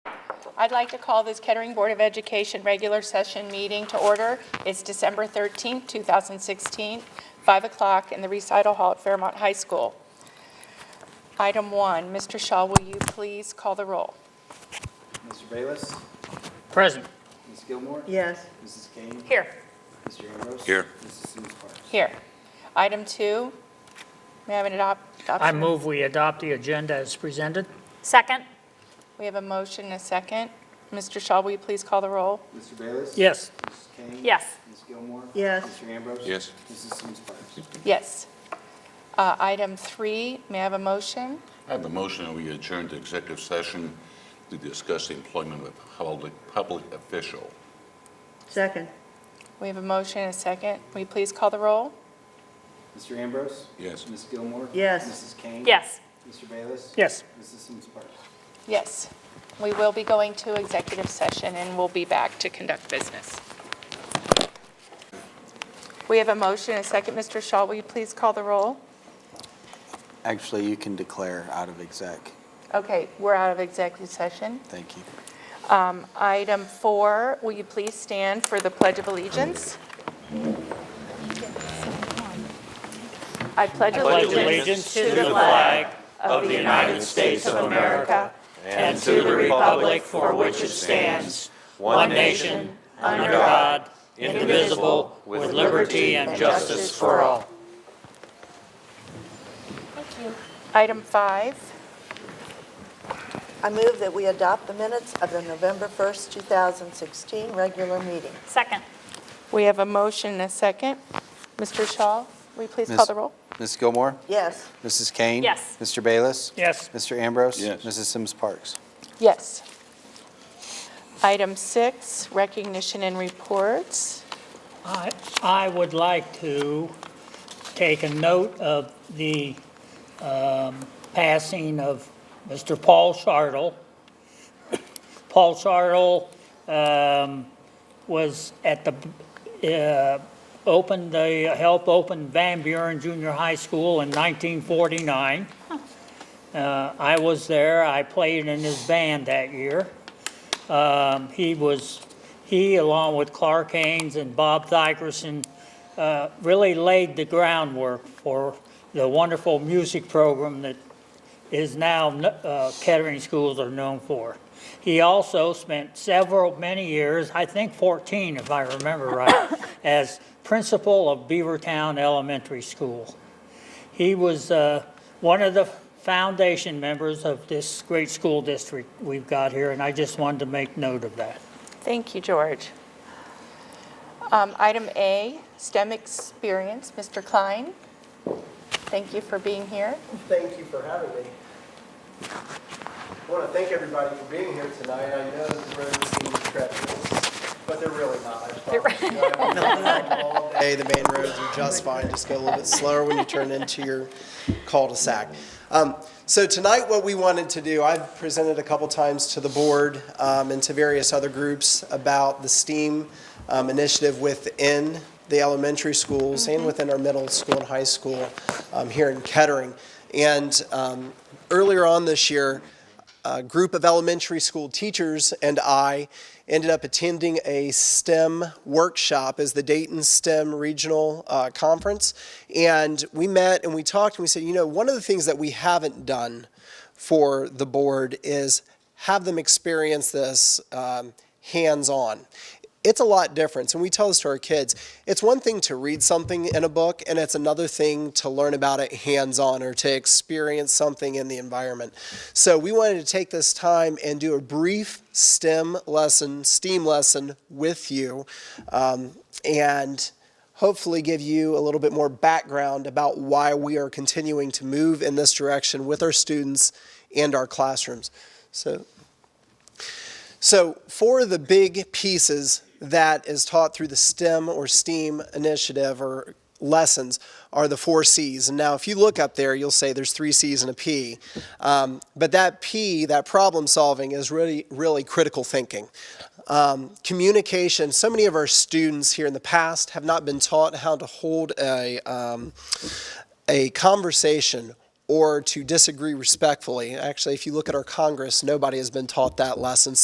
I'd like to call this Kettering Board of Education regular session meeting to order. It's December 13th, 2016, 5 o'clock in the recital hall at Fairmont High School. Item one, Mr. Shaw, will you please call the roll? Mr. Bayless? Present. Ms. Gilmore? Yes, Mrs. Kane? Here. Mr. Ambrose? Here. Mrs. Sims Parks? Here. Item two, may I have an adop- adoption? I move we adopt the agenda as presented. Second? We have a motion and a second. Mr. Shaw, will you please call the roll? Mr. Bayless? Yes. Mrs. Kane? Yes. Ms. Gilmore? Yes. Mr. Ambrose? Yes. Mrs. Sims Parks? Yes. Uh, Item three, may I have a motion? I have a motion that we adjourn to executive session to discuss the employment of a public, public official. second, We have a motion and a second. Will you please call the roll? Mr. Ambrose? Yes. Ms. Gilmore? Yes. Mrs. Kane? Yes. Mr. Bayless? Yes. Mrs. Sims Parks? Yes. We will be going to executive session, and we'll be back to conduct business. We have a motion and a second. Mr. Shaw, will you please call the roll? Actually, you can declare out of exec. Okay, we're out of executive session. Thank you. Um, Item four, will you please stand for the Pledge of Allegiance? I pledge allegiance to the flag of the United States of America and to the republic for which it stands, one nation, under God, indivisible, with liberty and justice for all. Item five, I move that we adopt the minutes of the November 1st, 2016 regular meeting. Second? we have a motion and a second. Mr. Shaw, will you please call Miss- the roll? Ms. Gilmore? Yes, Mrs. Kane? Yes. Mr. Bayless? Yes. Mr. Ambrose? Yes. Mrs. Sims Parks? Yes. Item six, recognition and reports. I, I would like to take a note of the um, passing of Mr. Paul Sartle. Paul Sartle um, was at the, uh, opened, the- helped open Van Buren Junior High School in 1949. Uh, I was there, I played in his band that year. Um, He was, he along with Clark Haynes and Bob Thigerson uh, really laid the groundwork for the wonderful music program that is now uh, Kettering schools are known for. He also spent several, many years, I think 14 if I remember right, as principal of Beavertown Elementary School. He was uh, one of the foundation members of this great school district we've got here, and I just wanted to make note of that. Thank you, George. Um, Item A, STEM experience, Mr. Klein. Thank you for being here. Thank you for having me. I want to thank everybody for being here tonight. I know that the road seems treacherous, but they're really not. I promise. You know, I've been driving all Day, the main roads are just fine. Just go a little bit slower when you turn into your cul-de-sac. Um, So tonight, what we wanted to do, I've presented a couple times to the board um, and to various other groups about the STEAM um, initiative within the elementary schools and within our middle school and high school um, here in Kettering. And um, earlier on this year, a group of elementary school teachers and I ended up attending a STEM workshop as the Dayton STEM Regional uh, Conference. And we met and we talked and we said, you know, one of the things that we haven't done for the board is have them experience this um, hands on. It's a lot different. And we tell this to our kids. It's one thing to read something in a book, and it's another thing to learn about it hands on or to experience something in the environment. So we wanted to take this time and do a brief STEM lesson, STEAM lesson with you, um, and hopefully give you a little bit more background about why we are continuing to move in this direction with our students and our classrooms. So so, for the big pieces that is taught through the STEM or STEAM initiative or lessons are the four C's. And now, if you look up there, you'll say there's three C's and a P. Um, but that P, that problem solving, is really, really critical thinking. Um, communication. So many of our students here in the past have not been taught how to hold a um, a conversation or to disagree respectfully. Actually, if you look at our Congress, nobody has been taught that lesson.